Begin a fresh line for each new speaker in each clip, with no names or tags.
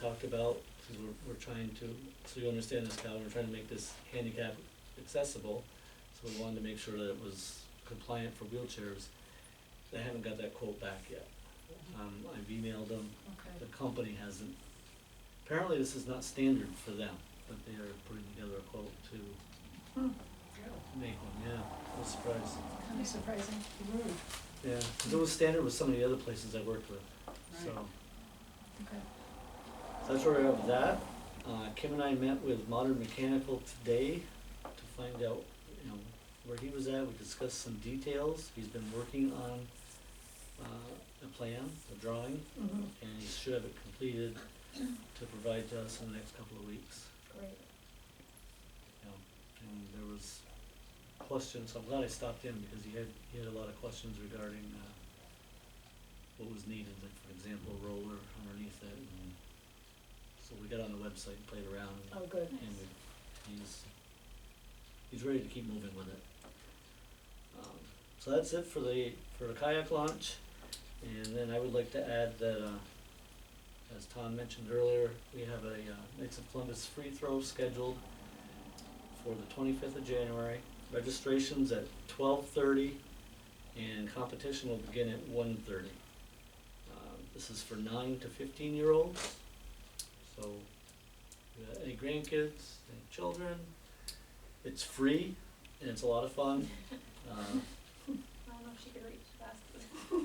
talked about, because we're, we're trying to, so you understand this, Cal, we're trying to make this handicap accessible. So we wanted to make sure that it was compliant for wheelchairs. I haven't got that quote back yet. Um, I've emailed them, the
Okay,
company hasn't. Apparently this is not standard for them, but they are putting together a quote to make one, yeah, I was surprised.
kind of surprising.
Mm-hmm.
Yeah, 'cause it was standard with some of the other places I worked with, so.
Right. Okay.
So that's where we are with that. Uh, Kim and I met with Modern Mechanical today to find out, you know, where he was at. We discussed some details. He's been working on, uh, a plan, a drawing,
Mm-hmm.
and he should have it completed to provide to us in the next couple of weeks.
Great.
you know, And there was questions, I'm glad I stopped in because he had, he had a lot of questions regarding, uh, what was needed, like for example, roller underneath it and, so we got on the website, and played around and
Oh, good.
and we, he's, he's ready to keep moving with it. Um, So that's it for the, for the kayak launch, and then I would like to add that, uh, as Tom mentioned earlier, we have a, uh, Knights of Columbus free throw scheduled for the twenty-fifth of January. Registration's at twelve-thirty, and competition will begin at one-thirty. This is for nine to fifteen-year-olds, so you got uh, any grandkids, any children. It's free and it's a lot of fun. Uh,
I don't know if she could reach fast.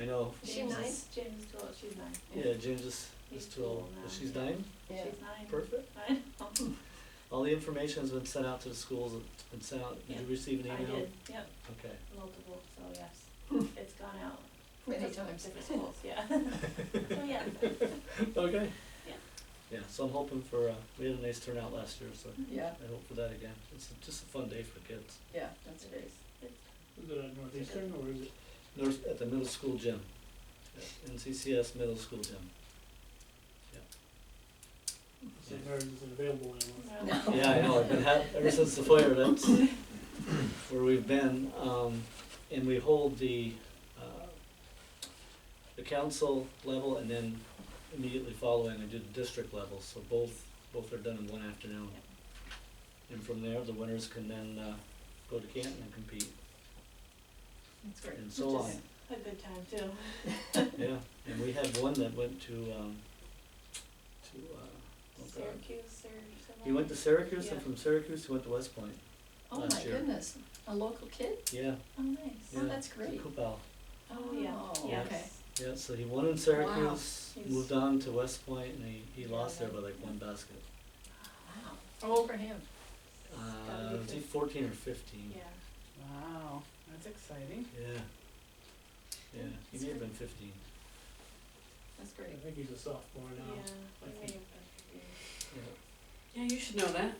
I know,
Is she
James
nine?
is- James is too old, she's nine.
yeah, James is, is
He's
too old,
cool
but
now,
she's
yeah.
nine,
Yeah.
She's nine.
perfect.
I know.
All the information's been sent out to the schools, it's been sent out, did you
Yeah,
receive an
I
email?
did, yep,
Okay,
multiple, so yes, it's gone out.
Many
Different-
times.
Different schools, yeah. So yeah,
okay.
Yeah.
Yeah, so I'm hoping for, uh, we had a nice turnout last year, so
Yeah,
I hope for that again. It's just a fun day for kids.
yeah, that's
it
great.
is. It's-
Is it at Northeastern or is it?
North, at the middle school gym, at NCCS middle school gym.
St. Mary's isn't available anymore?
no.
Yeah, I know, I've been ha- ever since the fire, that's where we've been, um, and we hold the, uh, the council level and then immediately following, we do the district level, so both, both are done in one afternoon. And from there, the winners can then, uh, go to Canton and compete,
That's great.
and so on.
Just- A good time too.
Yeah, and we had one that went to, um, to, uh, oh God.
Syracuse or somewhere.
He went to Syracuse, and
Yeah.
from Syracuse, he went to West Point,
Oh, my
Last year.
goodness. A local kid?
yeah,
Oh, nice.
Yeah.
Oh, that's
to
great.
Coupal.
Oh, yeah,
Oh,
yes.
okay.
Yeah, so he won in Syracuse, moved on to West Point, and he, he lost there by like one basket.
Wow. How old for him?
Uh, was he fourteen or fifteen?
Yeah.
Wow, that's exciting.
Yeah. Yeah, he may have been fifteen.
That's
I
great.
think he's a sophomore
Yeah,
now.
he may have been
Yeah.
Yeah, you should know that.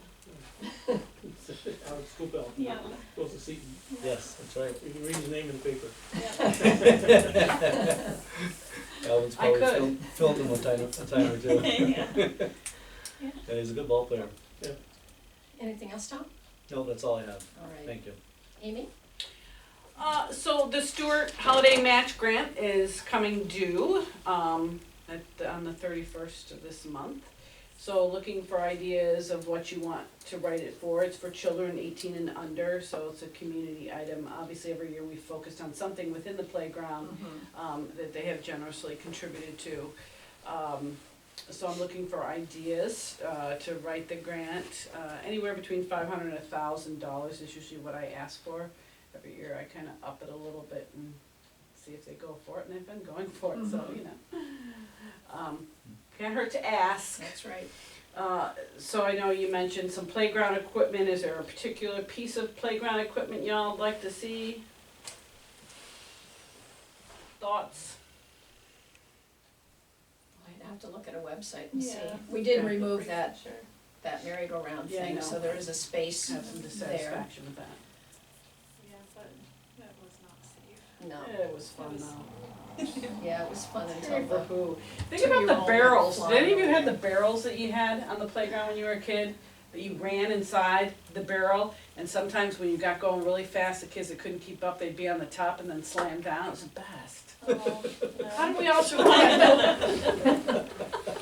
Out of school bell.
Yeah.
Goes to Seton.
Yes, that's right.
You can read his name in the paper.
Yeah.
Calvin's
I
probably
could.
filmed, filmed him one time, a time or two.
Yeah.
Yeah, he's a good ball player.
Anything else, Tom?
No, that's all I have.
All right.
Thank you.
Amy?
Uh, so the Stewart Holiday Match Grant is coming due, um, at, the- on the thirty-first of this month. So looking for ideas of what you want to write it for, it's for children eighteen and under, so it's a community item. Obviously, every year we focused on something within the playground, um, that they have generously contributed to. Um, so I'm looking for ideas, uh, to write the grant, uh, anywhere between five hundred and a thousand dollars is usually what I ask for. Every year I kinda up it a little bit and see if they go for it, and they've been going for it, so,
Mm-hmm.
you know. Um, can't hurt to ask.
That's right.
Uh, so I know you mentioned some playground equipment, is there a particular piece of playground equipment y'all would like to see? Thoughts?
I'd have to look at a website and see.
Yeah.
We did
Okay.
remove that,
Sure.
that merry-go-round
Yeah, I
thing,
know.
so there is a space
Have some
there.
dissatisfaction with that.
Yeah, but that was not safe.
No,
It was fun though.
yeah, it was fun until
Sorry for
the,
who. Think
Two-year-old
about the barrels, did
flying
any of you
over.
have the barrels that you had on the playground when you were a kid? That you ran inside the barrel, and sometimes when you got going really fast, the kids that couldn't keep up, they'd be on the top and then slam down, it was the best.
Oh, no.
How did we all survive that?